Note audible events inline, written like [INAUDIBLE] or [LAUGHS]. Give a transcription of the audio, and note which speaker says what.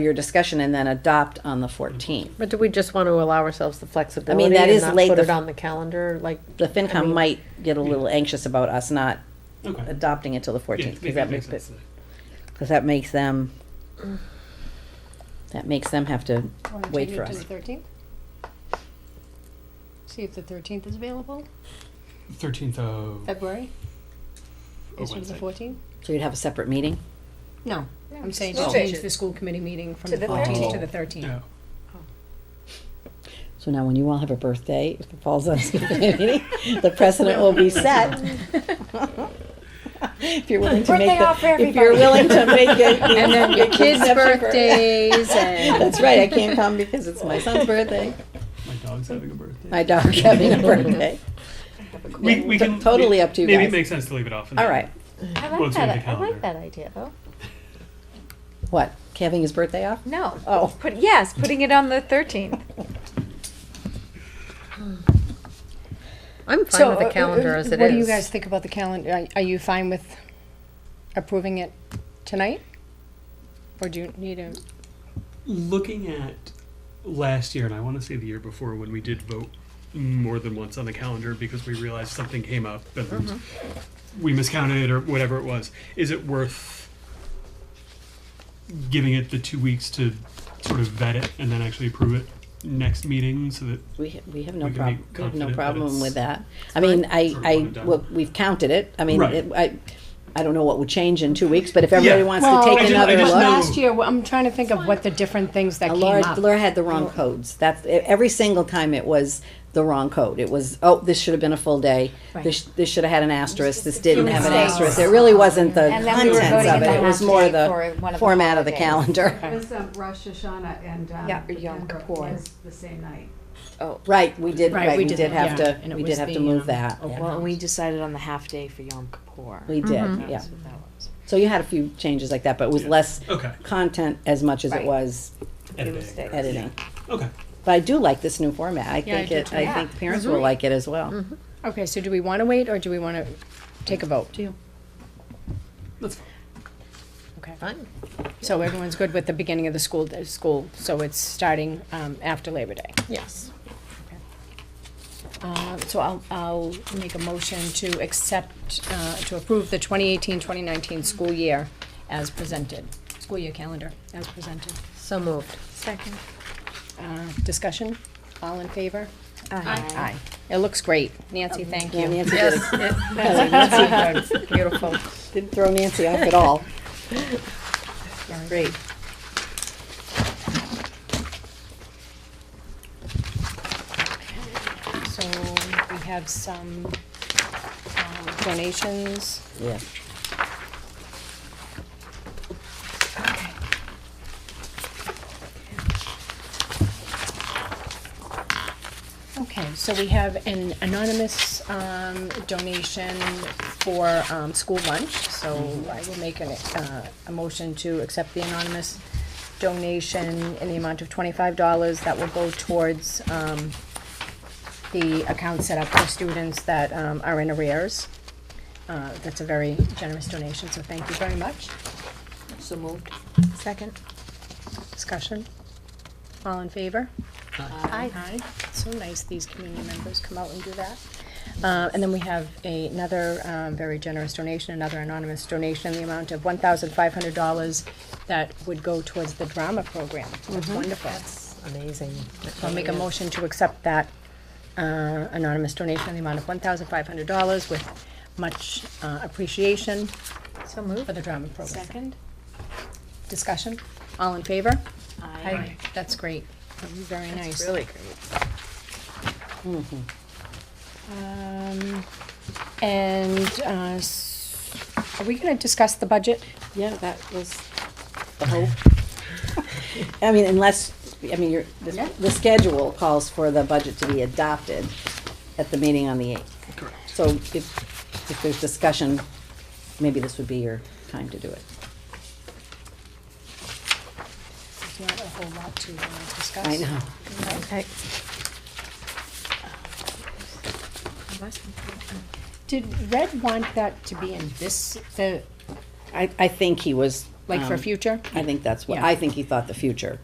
Speaker 1: your discussion and then adopt on the 14th.
Speaker 2: But do we just want to allow ourselves the flexibility?
Speaker 1: that
Speaker 2: and
Speaker 1: is
Speaker 2: not
Speaker 1: late,
Speaker 2: Put
Speaker 1: the
Speaker 2: it
Speaker 1: f-
Speaker 2: on the calendar, like,
Speaker 1: The FinCom might get a little anxious about us not
Speaker 3: Okay.
Speaker 1: adopting it till the
Speaker 3: Yeah,
Speaker 1: 14th,
Speaker 3: make-
Speaker 1: because Uh, that
Speaker 3: makes
Speaker 1: makes,
Speaker 3: sense.
Speaker 1: because that makes them, that makes them have to
Speaker 4: Wanna
Speaker 1: wait
Speaker 4: take
Speaker 1: for
Speaker 4: it to
Speaker 1: us.
Speaker 4: the thirteenth? See if the thirteenth is available,
Speaker 3: Thirteenth of
Speaker 4: February,
Speaker 3: oh,
Speaker 4: instead of the
Speaker 3: Wednesday.
Speaker 4: fourteenth?
Speaker 1: So you'd have a separate meeting?
Speaker 4: No, I'm saying
Speaker 5: just
Speaker 4: to
Speaker 5: change
Speaker 4: change
Speaker 5: it.
Speaker 4: the school committee meeting from
Speaker 5: To
Speaker 4: the
Speaker 5: the
Speaker 4: fourteenth to
Speaker 3: Oh.
Speaker 4: the thirteenth.
Speaker 3: Yeah.
Speaker 1: So now when you all have a birthday, if it falls on [LAUGHS] a school committee meeting, the precedent will be set. If you're willing to make
Speaker 5: Birthday off for
Speaker 1: the, if you're
Speaker 5: everybody.
Speaker 1: willing to make it.
Speaker 4: And then your kids' birthdays and.
Speaker 1: That's right, I can't come because it's my son's birthday,
Speaker 3: My dog's having a birthday.
Speaker 1: my
Speaker 3: [LAUGHS]
Speaker 1: dog having a [LAUGHS] birthday.
Speaker 3: we, we
Speaker 1: T-
Speaker 3: can
Speaker 1: totally
Speaker 3: we-
Speaker 1: up to you
Speaker 3: Maybe
Speaker 1: guys.
Speaker 3: it makes sense to leave it off. and
Speaker 1: All
Speaker 3: then-
Speaker 1: right,
Speaker 5: I
Speaker 3: Well,
Speaker 5: like
Speaker 3: it's on
Speaker 5: that,
Speaker 3: the
Speaker 5: I
Speaker 3: calendar.
Speaker 5: like that idea though.
Speaker 1: what, having his birthday off?
Speaker 5: No.
Speaker 1: Oh.
Speaker 5: Put, yes, putting it on the thirteenth.
Speaker 2: I'm
Speaker 4: So,
Speaker 2: fine with the
Speaker 4: uh, uh,
Speaker 2: calendar as it is.
Speaker 4: What do you guys think about the calendar? Are, are you fine with approving it tonight? Or do you need a,
Speaker 3: Looking at last year, and I want to say the year before, when we did vote more than once on the calendar because we realized something came up and
Speaker 1: Mm-hmm.
Speaker 3: we miscounted or whatever it was. Is it worth giving it the two weeks to sort of vet it and then actually approve it next meeting so that
Speaker 1: We, ha- we have no
Speaker 3: We can
Speaker 1: problem, we
Speaker 3: be
Speaker 1: have
Speaker 3: confident
Speaker 1: no
Speaker 3: that
Speaker 1: problem
Speaker 3: it's-
Speaker 1: with that. I mean, I,
Speaker 3: Sort of
Speaker 1: I,
Speaker 3: one and
Speaker 1: well,
Speaker 3: done.
Speaker 1: we've counted it, I mean,
Speaker 3: Right.
Speaker 1: it- I, I don't know what would change in two weeks, but if everybody
Speaker 3: Yeah.
Speaker 1: wants to
Speaker 3: I
Speaker 1: take
Speaker 3: just- I
Speaker 1: another
Speaker 3: just
Speaker 1: look.
Speaker 3: know-
Speaker 4: last year, well, I'm trying to think of what the different things that
Speaker 1: Uh,
Speaker 4: came
Speaker 1: Laura,
Speaker 4: up.
Speaker 1: Laura had the wrong codes. That's e- every single time it was the wrong code. It was oh, this should have been a full day. This, sh- this should have had an asterisk. This didn't have an
Speaker 5: mistakes.
Speaker 1: asterisk. It really wasn't the
Speaker 5: And then we were
Speaker 1: contents
Speaker 5: voting
Speaker 1: of
Speaker 5: in
Speaker 1: it.
Speaker 5: the
Speaker 1: It was
Speaker 5: half
Speaker 1: more
Speaker 5: day
Speaker 1: the
Speaker 5: for one of the
Speaker 1: format of the
Speaker 5: holidays.
Speaker 1: calendar.
Speaker 6: It was um, Rosh Hashanah and um,
Speaker 5: Yeah,
Speaker 6: the
Speaker 5: Yom
Speaker 6: Kippur
Speaker 5: Kippur.
Speaker 6: was the same night.
Speaker 1: Right, we did. Right, we, did,
Speaker 4: that,
Speaker 1: have
Speaker 4: yeah.
Speaker 1: to.
Speaker 4: And it
Speaker 1: We
Speaker 4: was
Speaker 1: did have to
Speaker 4: the,
Speaker 1: move
Speaker 4: um,
Speaker 1: that. yeah.
Speaker 7: Well, and we decided on the half day for Yom Kippur.
Speaker 1: We did.
Speaker 4: Mm-hmm.
Speaker 1: Yeah.
Speaker 7: That's what that was.
Speaker 1: So you had a few changes like that, but it was
Speaker 3: Yeah.
Speaker 1: less
Speaker 3: okay
Speaker 1: content as much as it
Speaker 5: Right.
Speaker 1: was
Speaker 3: editing
Speaker 7: mistakes.
Speaker 1: editing.
Speaker 3: okay
Speaker 1: But I do like this new format. I
Speaker 4: Yeah, I
Speaker 1: think
Speaker 4: do
Speaker 1: it.
Speaker 4: too.
Speaker 1: I
Speaker 5: Yeah.
Speaker 1: think parents will like it as well.
Speaker 4: Okay, so do we wanna wait or do we wanna take a vote?
Speaker 3: that's fine.
Speaker 4: Okay.
Speaker 2: Fine.
Speaker 4: So everyone's good with the beginning of the school, the school, so it's starting, um, after Labor Day.
Speaker 2: Yes.
Speaker 4: Uh, so I'll, I'll make a motion to accept, uh, to approve the 2018-2019 school year as presented, school year calendar as presented.
Speaker 2: So moved.
Speaker 5: Second.
Speaker 4: Uh, discussion, all in favor?
Speaker 5: Aye.
Speaker 4: Aye. It looks great. Nancy, thank
Speaker 1: Yeah,
Speaker 4: you.
Speaker 1: Nancy did a
Speaker 2: Beautiful.
Speaker 1: Didn't throw Nancy off at all. Great.
Speaker 4: So we have some, um, donations.
Speaker 1: Yeah.
Speaker 4: Okay, so we have an anonymous um, donation for um, school lunch, so I will make an, uh, a motion to accept the anonymous donation in the amount of twenty-five dollars that will go towards um, the account set up for students that um, are in arrears. Uh, That's a very generous donation, so thank you very much.
Speaker 7: So moved.
Speaker 4: Second. Discussion? All in favor? Aye. Aye. So nice these community members come out and do that. Uh, and then we have a- another, um, very generous donation, another anonymous donation, the amount of one thousand five hundred dollars that would go towards the drama program. Mm-hmm. That's wonderful.
Speaker 2: Amazing.
Speaker 4: So I'll make a motion to accept that, uh, anonymous donation in the amount of one thousand five hundred dollars with much, uh, appreciation
Speaker 5: So moved.
Speaker 4: for the drama program.
Speaker 5: Second.
Speaker 4: Discussion? All in favor?
Speaker 5: Aye.
Speaker 4: I, that's great, That'd be very nice. Mm-hmm.
Speaker 2: Really great.
Speaker 4: Um, and, uh, s- are we gonna discuss the budget?
Speaker 1: Yeah, that was the hope. I mean, unless, I mean, you're, the, the schedule calls for the budget to be adopted at the meeting on the eighth.
Speaker 3: Correct.
Speaker 1: So if, if there's discussion, maybe this would be your time to do it.
Speaker 4: There's not a whole lot to, uh, discuss.
Speaker 1: I know.
Speaker 2: Okay.
Speaker 4: Did Red want that to be in this, the,
Speaker 1: I, I think he was
Speaker 4: Like for
Speaker 1: Um,
Speaker 4: future?
Speaker 1: I think that's what,
Speaker 4: Yeah.
Speaker 1: I think he thought the future.